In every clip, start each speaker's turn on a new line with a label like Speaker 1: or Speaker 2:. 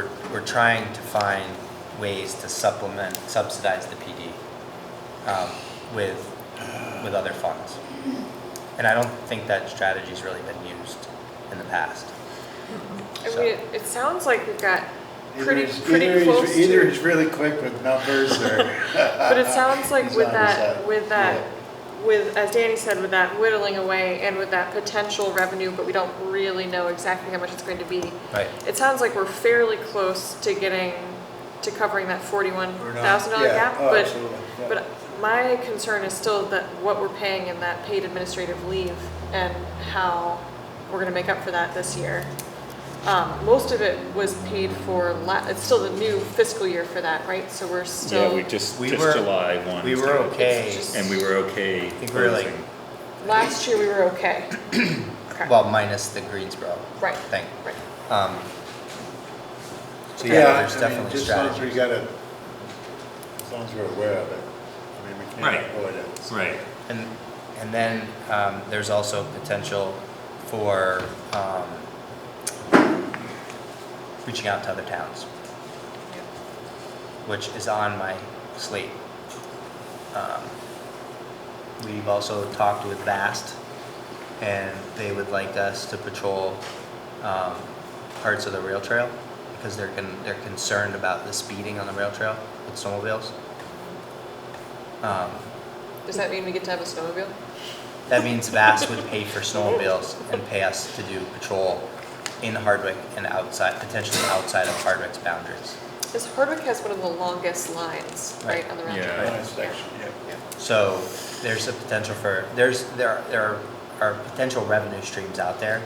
Speaker 1: we're trying to find ways to supplement, subsidize the PD um, with, with other funds. And I don't think that strategy's really been used in the past.
Speaker 2: I mean, it- it sounds like we've got
Speaker 3: Either
Speaker 2: pretty,
Speaker 3: he's- either
Speaker 2: pretty
Speaker 3: he's-
Speaker 2: close
Speaker 3: Either
Speaker 2: to,
Speaker 3: he's really quick with numbers or.
Speaker 2: but it sounds like
Speaker 3: He's
Speaker 2: with
Speaker 3: on his
Speaker 2: that,
Speaker 3: side.
Speaker 2: with that, with, as Danny said, with that whittling away and with that potential revenue, but we don't really know exactly how much it's going to be.
Speaker 1: Right.
Speaker 2: It sounds like we're fairly close to getting, to covering that forty-one
Speaker 3: We're not-
Speaker 2: thousand dollar
Speaker 3: yeah,
Speaker 2: gap,
Speaker 3: oh,
Speaker 2: but,
Speaker 3: absolutely, yeah.
Speaker 2: but my concern is still that what we're paying in that paid administrative leave and how we're gonna make up for that this year. Um, most of it was paid for la, it's still the new fiscal year for that, right? So we're
Speaker 4: Yeah, we
Speaker 2: still,
Speaker 4: just,
Speaker 1: We
Speaker 4: just
Speaker 1: were-
Speaker 4: July one.
Speaker 1: We were okay,
Speaker 2: It's just-
Speaker 4: And we were okay
Speaker 1: think we were like-
Speaker 4: closing.
Speaker 2: last year we were okay. Okay.
Speaker 1: well, minus the Greensboro
Speaker 2: Right.
Speaker 1: thing.
Speaker 2: Right.
Speaker 1: Um, So
Speaker 3: I
Speaker 1: yeah, there's
Speaker 3: mean,
Speaker 1: definitely
Speaker 3: Just as long as we
Speaker 1: strategies.
Speaker 3: gotta, as long as we're aware of it. I mean, we
Speaker 4: Right.
Speaker 3: can't avoid it.
Speaker 4: Right,
Speaker 1: And, and then um, there's also potential for um, reaching out to other towns, which is on my slate. Um, We've also talked with VAST, and they would like us to patrol um, parts of the rail trail because they're, con- they're concerned about the speeding on the rail trail with snowmobiles. Um,
Speaker 2: Does that mean we get to have a snowmobile?
Speaker 1: that means VAS would pay for snowmobiles and pay us to do patrol in Hardwick and outside, potentially outside of Hardwick's boundaries.
Speaker 2: Because Hardwick has one of the longest lines, right,
Speaker 1: Right.
Speaker 2: on the round
Speaker 4: Yeah.
Speaker 2: trip.
Speaker 3: Nice section, yeah.
Speaker 1: So there's a potential for, there's, there are, there are- are potential revenue streams out there.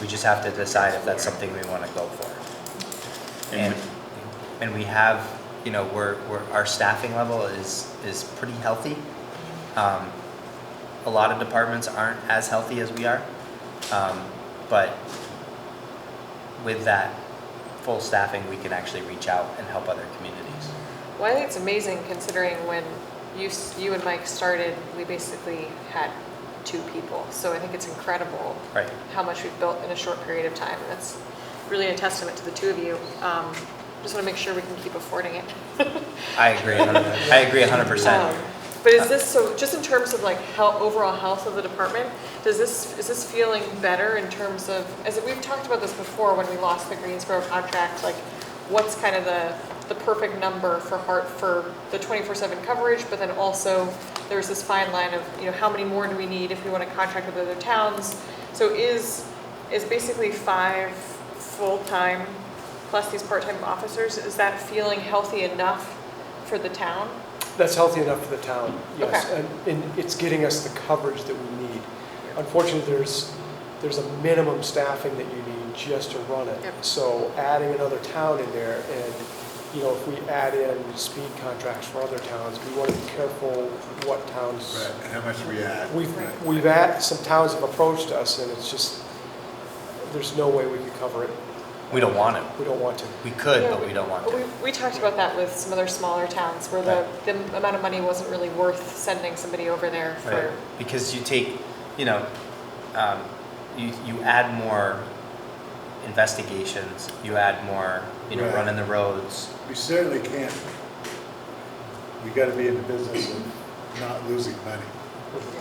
Speaker 1: We just have to decide if that's something we wanna go for. And, and we have, you know, we're, we're, our staffing level is, is pretty healthy. Um, a lot of departments aren't as healthy as we are. Um, but with that full staffing, we can actually reach out and help other communities.
Speaker 2: Well, I think it's amazing considering when you, s- you and Mike started, we basically had two people. So I think it's incredible
Speaker 1: Right.
Speaker 2: how much we've built in a short period of time. That's really a testament to the two of you. Um, just want to make sure we can keep affording it.
Speaker 1: I agree, a hundred- I agree a hundred
Speaker 2: Um,
Speaker 1: percent.
Speaker 2: But is this, so just in terms of like health, overall health of the department, does this, is this feeling better in terms of, as we've talked about this before when we lost the Greensboro contract, like what's kind of the, the perfect number for heart, for the twenty-four seven coverage, but then also there's this fine line of, you know, how many more do we need if we want to contract with other towns? So is, is basically five full-time plus these part-time officers, is that feeling healthy enough for the town?
Speaker 5: That's healthy enough for the town, yes.
Speaker 2: Okay.
Speaker 5: And, and it's getting us the coverage that we need. Unfortunately, there's, there's a minimum staffing that you need just to run
Speaker 2: Yep.
Speaker 5: it. So adding another town in there and, you know, if we add in speed contracts for other towns, we want to be careful what towns.
Speaker 3: Right, and how much we add. Right.
Speaker 5: We've, we've had, some towns have approached us and it's just, there's no way we could cover it.
Speaker 1: We don't want to.
Speaker 5: We don't want to.
Speaker 1: We could, but we don't want
Speaker 2: But
Speaker 1: to.
Speaker 2: we, we talked about that with some other smaller towns where the, the amount of money wasn't really worth sending somebody over there
Speaker 1: Right,
Speaker 2: for.
Speaker 1: because you take, you know, um, you, you add more investigations, you add more, you know,
Speaker 3: Right.
Speaker 1: running the roads.
Speaker 3: We certainly can't, we gotta be in the business of not losing money.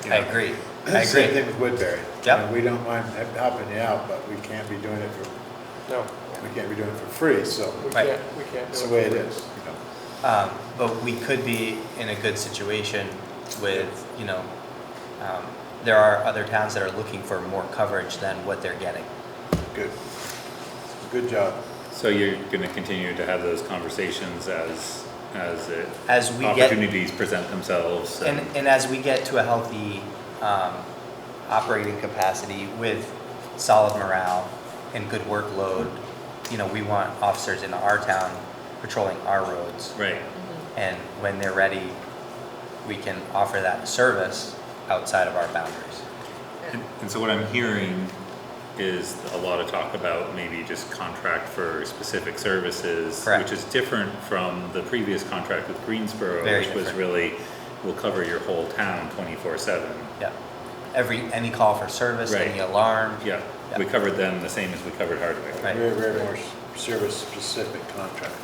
Speaker 1: I agree, I
Speaker 3: Same
Speaker 1: agree.
Speaker 3: thing with Woodbury.
Speaker 1: Yep.
Speaker 3: You know, We don't mind helping you out, but we can't be doing it for,
Speaker 5: No,
Speaker 3: we can't be doing it for free, so
Speaker 5: we
Speaker 1: Right.
Speaker 5: can't, we can't
Speaker 3: it's the
Speaker 5: do
Speaker 3: way
Speaker 5: it.
Speaker 3: it is, you know.
Speaker 1: Um, but we could be in a good situation with, you know, um, there are other towns that are looking for more coverage than what they're getting.
Speaker 3: Good. Good job.
Speaker 4: so you're gonna continue to have those conversations as, as it.
Speaker 1: As we get.
Speaker 4: Opportunities present themselves
Speaker 1: And,
Speaker 4: and,
Speaker 1: and as we get to a healthy um, operating capacity with solid morale and good workload, you know, we want officers in our town patrolling our roads.
Speaker 4: right,
Speaker 1: And when they're ready, we can offer that service outside of our boundaries.
Speaker 4: And- And so what I'm hearing is a lot of talk about maybe just contract for specific services,
Speaker 1: Correct.
Speaker 4: which is different from the previous contract with Greensboro,
Speaker 1: Very
Speaker 4: which was
Speaker 1: different.
Speaker 4: really, will cover your whole town twenty-four seven.
Speaker 1: Yeah. Every, any call for service, any
Speaker 4: Right.
Speaker 1: alarm.
Speaker 4: Yeah, we covered them the same as we covered Hardwick.
Speaker 1: Right.
Speaker 3: Very, very more service-specific contract.